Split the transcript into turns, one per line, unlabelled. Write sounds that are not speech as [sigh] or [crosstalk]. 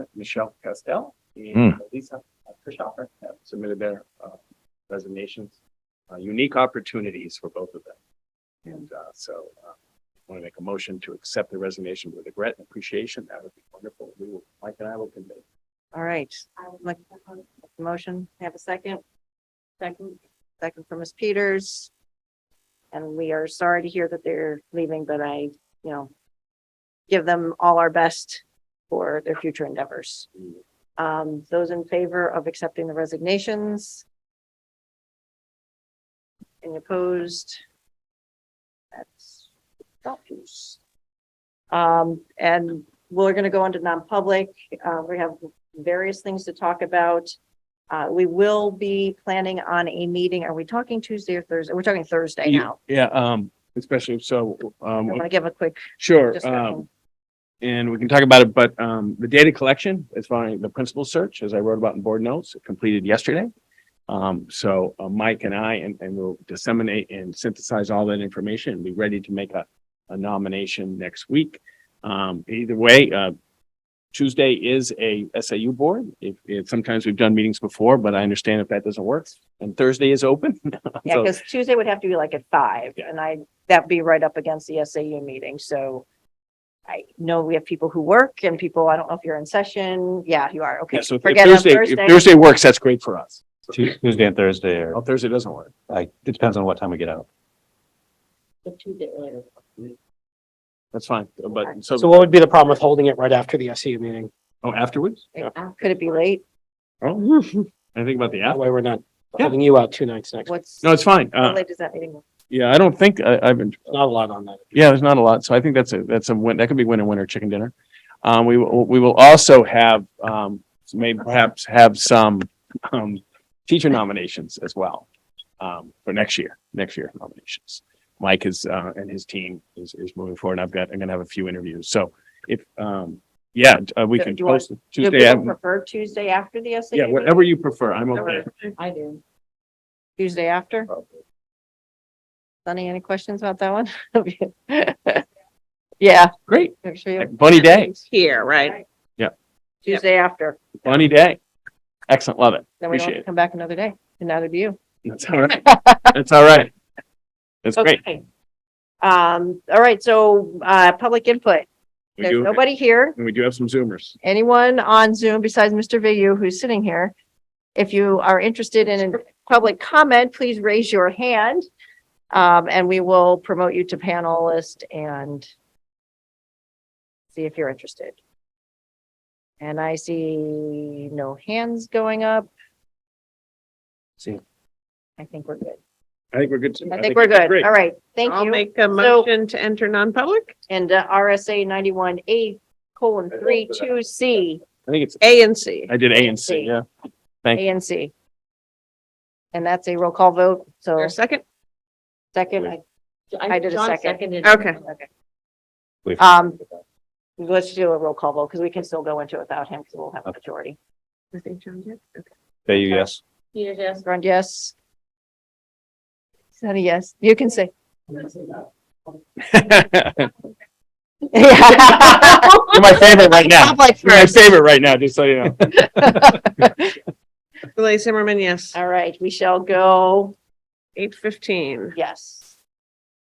Michelle Castell and
Hmm.
Lisa Christopher have submitted their uh, resignations. Uh, Unique opportunities for both of them. And uh, so I want to make a motion to accept the resignation with regret and appreciation. That would be wonderful. We will, Mike and I will convey.
All right. Like, Motion, have a second? Second. Second from Ms. Peters. And we are sorry to hear that they're leaving, but I, you know, give them all our best for their future endeavors. Um, those in favor of accepting the resignations? Any opposed? That's, that's. Um, and we're gonna go into non-public. Uh, we have various things to talk about. Uh, we will be planning on a meeting. Are we talking Tuesday or Thursday? We're talking Thursday
Ye-
now.
Yeah, um, especially so,
I
um,
want to give a quick
sure. Um,
discussion.
and we can talk about it, but, um, the data collection as far as the principal search, as I wrote about in board notes, completed yesterday. Um, so uh, Mike and I, and, and we'll disseminate and synthesize all that information and be ready to make a, a nomination next week. Um, either way, uh, Tuesday is a SAU board. If, if sometimes we've done meetings before, but I understand if that doesn't work. And Thursday is open. [laughs]
Yeah,
So-
because Tuesday would have to be like at five
Yeah.
and I, that'd be right up against the SAU meeting. So I know we have people who work and people, I don't know if you're in session. Yeah, you are. Okay.
Yeah, so if- if
Forget on
Thursday, if Thursday works, that's great for us.
Tu- Tuesday and Thursday, or
Well, Thursday doesn't work.
like, it depends on what time we get out.
That's fine. But
So
so,
what would be the problem with holding it right after the SU meeting?
oh, afterwards?
Could it be late?
Oh, anything about the
That
app?
way we're not
Yeah.
having you out two nights next. week.
What's?
No, it's fine.
How
Uh,
late does that meeting? go?
yeah, I don't think I, I've been,
Not a lot on that.
yeah, there's not a lot. So I think that's a, that's a win. That could be winner, winner, chicken dinner. Um, we, will- we will also have, um, maybe perhaps have some, um, teacher nominations as well. Um, for next year, next year nominations. Mike is, uh, and his team is, is moving forward. I've got, I'm gonna have a few interviews. So if, um, yeah, uh, we
Do-
can
do you want-
post it
Do
Tuesday.
people
I'm-
Prefer Tuesday after the SAU?
Yeah, whatever you prefer. I'm okay.
meeting? I do. Tuesday after? Sunny, any questions about [laughs] that one? Yeah,
Great.
make sure you.
Bunny day,
Here, right?
Yeah.
Tuesday after,
bunny day. Excellent. Love it.
then we don't have
Appreciate
to
it.
come back another day, and neither do you.
That's all
[laughs]
right. That's all right. That's great.
Okay. Um, all right, so, uh, public input.
We
There's
do,
nobody here,
and we do have some Zoomers.
anyone on Zoom besides Mr. Vigu who's sitting here. If you are interested in public comment, please raise your hand. Um, and we will promote you to panelist and see if you're interested. And I see no hands going up.
See.
I think we're good.
I think we're good. to-
I think we're good.
great.
All right, thank
I'll
you.
make a motion to enter non-public,
And uh, RSA ninety-one A colon three two C,
I think it's,
A and C.
I did A and C, yeah.
A and C. And that's a roll call vote, so
Your second?
second, I- I did a second.
Okay.
Okay.
We've-
Um, let's do a roll call vote, because we can still go into it without him, because we'll have a majority.
I think John did. Okay.
There you yes.
Peters, yes. Grund, yes. Sunny, yes, you can [laughs] say.
[laughs]
[laughs]
You're my favorite right now.
Public
You're my
first.
favorite right now, just so you know.
Lily Zimmerman, yes.
All right, we shall go,
Eight fifteen.
yes.